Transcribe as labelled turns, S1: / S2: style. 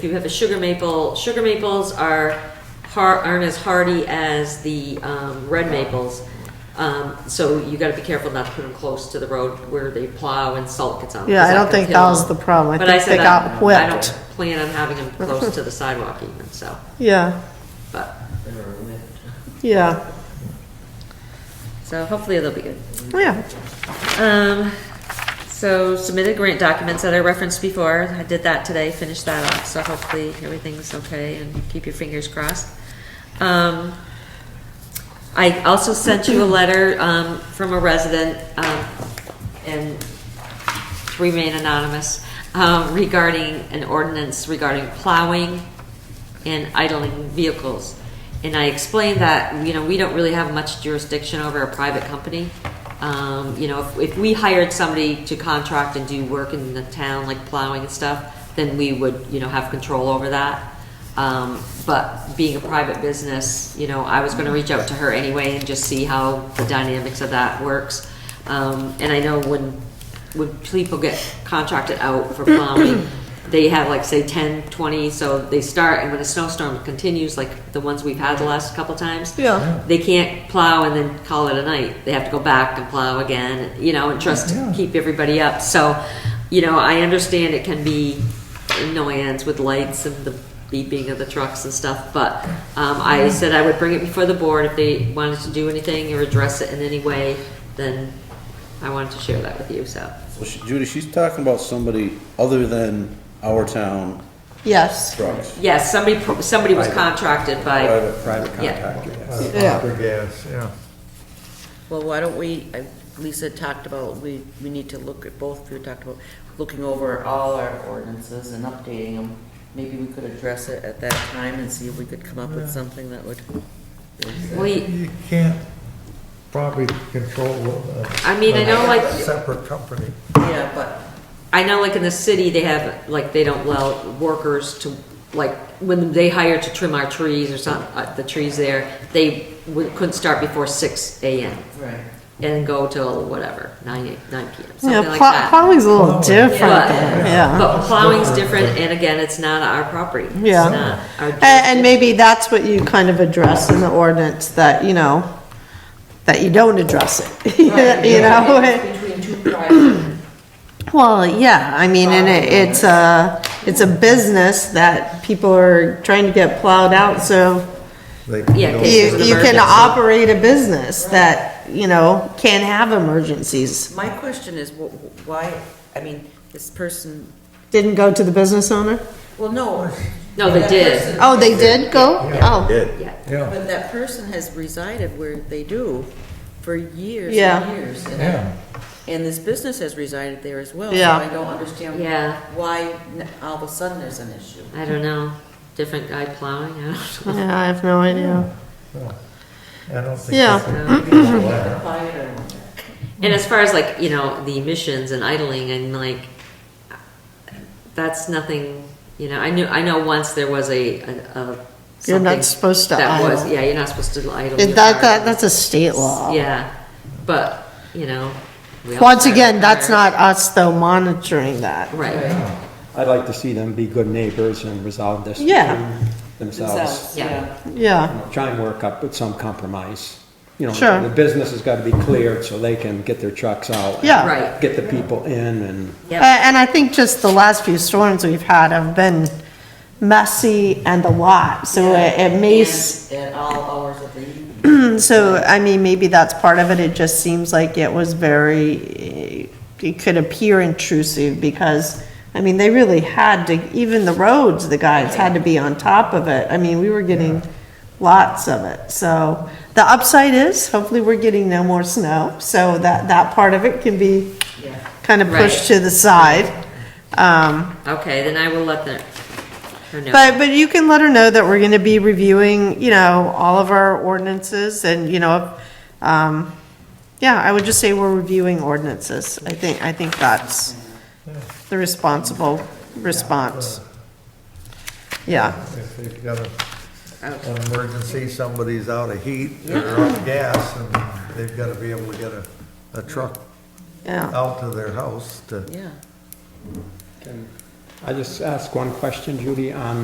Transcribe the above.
S1: You have a sugar maple, sugar maples are har, aren't as hardy as the, um, red maples. Um, so you gotta be careful not to put them close to the road where they plow and salt gets on. 'em,
S2: Yeah,
S1: 'cause
S2: I
S1: that
S2: don't
S1: can
S2: think
S1: kill
S2: that was
S1: 'em.
S2: the problem. I
S1: But
S2: think they
S1: said I-
S2: got
S1: I
S2: whipped.
S1: don't plan on having them close to the sidewalk even, so,
S2: Yeah,
S1: but,
S2: yeah,
S1: so hopefully they'll be good.
S2: yeah.
S1: Um, so submitted grant documents that I referenced before, I did that today, finished that off, so hopefully everything's okay and keep your fingers crossed. Um, I also sent you a letter, um, from a resident, um, and to remain anonymous, um, regarding an ordinance regarding plowing and idling vehicles. And I explained that, you know, we don't really have much jurisdiction over a private company. Um, you know, if, if we hired somebody to contract and do work in the town, like plowing and stuff, then we would, you know, have control over that. Um, but being a private business, you know, I was gonna reach out to her anyway and just see how the dynamics of that works. Um, and I know when, when people get contracted out for plowing, they have like, say, 10, 20, so they start, and when a snowstorm continues, like the ones we've had the last couple times.
S2: Yeah.
S1: They can't plow and then call it a night. They have to go back and plow again, you know, and trust to keep everybody up. So, you know, I understand it can be annoyance with lights and the beeping of the trucks and stuff, but um, I said I would bring it before the board if they wanted to do anything or address it in any way, then I wanted to share that with you, so.
S3: Well, she- Judy, she's talking about somebody other than our town
S2: Yes,
S3: trucks.
S1: Yes, somebody, pro- somebody was contracted by,
S3: Private, private
S1: yeah.
S2: yeah,
S4: gas, yeah.
S5: Well, why don't we, I- Lisa talked about, we, we need to look at both, we talked about looking over all our ordinances and updating them. Maybe we could address it at that time and see if we could come up with something that would.
S1: we,
S4: You can't probably control. a-
S1: I mean, I know, like-
S4: a Separate company.
S5: Yeah, but,
S1: I know like in the city, they have, like, they don't allow workers to, like, when they hire to trim our trees or some, uh, the trees there, they would- couldn't start before six AM
S5: right.
S1: and go till whatever, nine, nine PM, something
S2: yeah,
S1: like
S2: plow-
S1: that.
S2: plowing's a little
S4: Plowing.
S2: different,
S1: But-
S2: though, yeah.
S1: But plowing's different, and again, it's not our property. It's
S2: Yeah.
S1: not our
S2: And, and maybe that's what you kind of address in the ordinance, that, you know, that you don't address it, you know?
S5: Between two private,
S2: Well, yeah, I mean, and it, it's a, it's a business that people are trying to get plowed out, so
S4: They-
S1: Yeah,
S4: they
S1: cases
S2: you,
S1: of
S2: you can
S1: emergency.
S2: operate a business that, you know, can have emergencies.
S5: my question is, wh- wh- why, I mean, this person,
S2: Didn't go to the business owner?
S5: well, no.
S1: No, they
S5: that
S1: did.
S5: person-
S2: Oh, they did go? Oh,
S3: Did.
S1: Yeah.
S4: Yeah,
S5: But that person has resided where they do for years
S2: Yeah.
S5: and years. and
S4: yeah.
S5: And this business has resided there as well.
S2: Yeah.
S5: So I don't understand.
S1: Yeah.
S5: Why n- all of a sudden there's an issue.
S1: I don't know, different guy plowing, I don't know.
S2: yeah, I have no idea.
S4: I don't think.
S2: Yeah.
S4: that's a control there.
S5: Fire.
S1: And as far as like, you know, the emissions and idling and like, that's nothing, you know, I knew, I know once there was a, a. a
S2: You're not
S1: something
S2: supposed to
S1: That was,
S2: idle.
S1: yeah, you're not supposed to idle. your
S2: It- That,
S1: car.
S2: that, that's a state law.
S1: Yeah, but, you know. we all
S2: Once
S1: drive
S2: again,
S1: our
S2: that's
S1: cars.
S2: not us though monitoring that.
S1: Right,
S6: I'd like to see them be good neighbors and resolve this
S2: Yeah.
S6: between themselves.
S1: yeah,
S2: Yeah,
S6: Try and work up with some compromise. You
S2: Sure.
S6: know, the business has got to be cleared so they can get their trucks out.
S2: yeah.
S1: right,
S6: Get the people in and,
S2: A-
S1: yep,
S2: And I think just the last few storms we've had have been messy and a lot, so it it may, s-
S5: And At all hours of the evening.
S2: so, I mean, maybe that's part of it, it just seems like it was very, it could appear intrusive because, I mean, they really had to, even the roads, the guys had to be on top of it, I mean, we were getting lots of it, so. The upside is, hopefully we're getting no more snow, so that, that part of it can be
S5: Yeah.
S2: kind of
S1: Right.
S2: pushed to the side. Um,
S1: okay, then I will let the, her know.
S2: but, but you can let her know that we're gonna be reviewing, you know, all of our ordinances and, you know, um, yeah, I would just say we're reviewing ordinances. I think, I think that's the responsible response. Yeah,
S4: If they've got a- an emergency, somebody's out of heat, they're out of gas, and they've got to be able to get a, a truck
S2: yeah.
S4: out to their house to
S5: Yeah.
S6: I just ask one question, Judy, on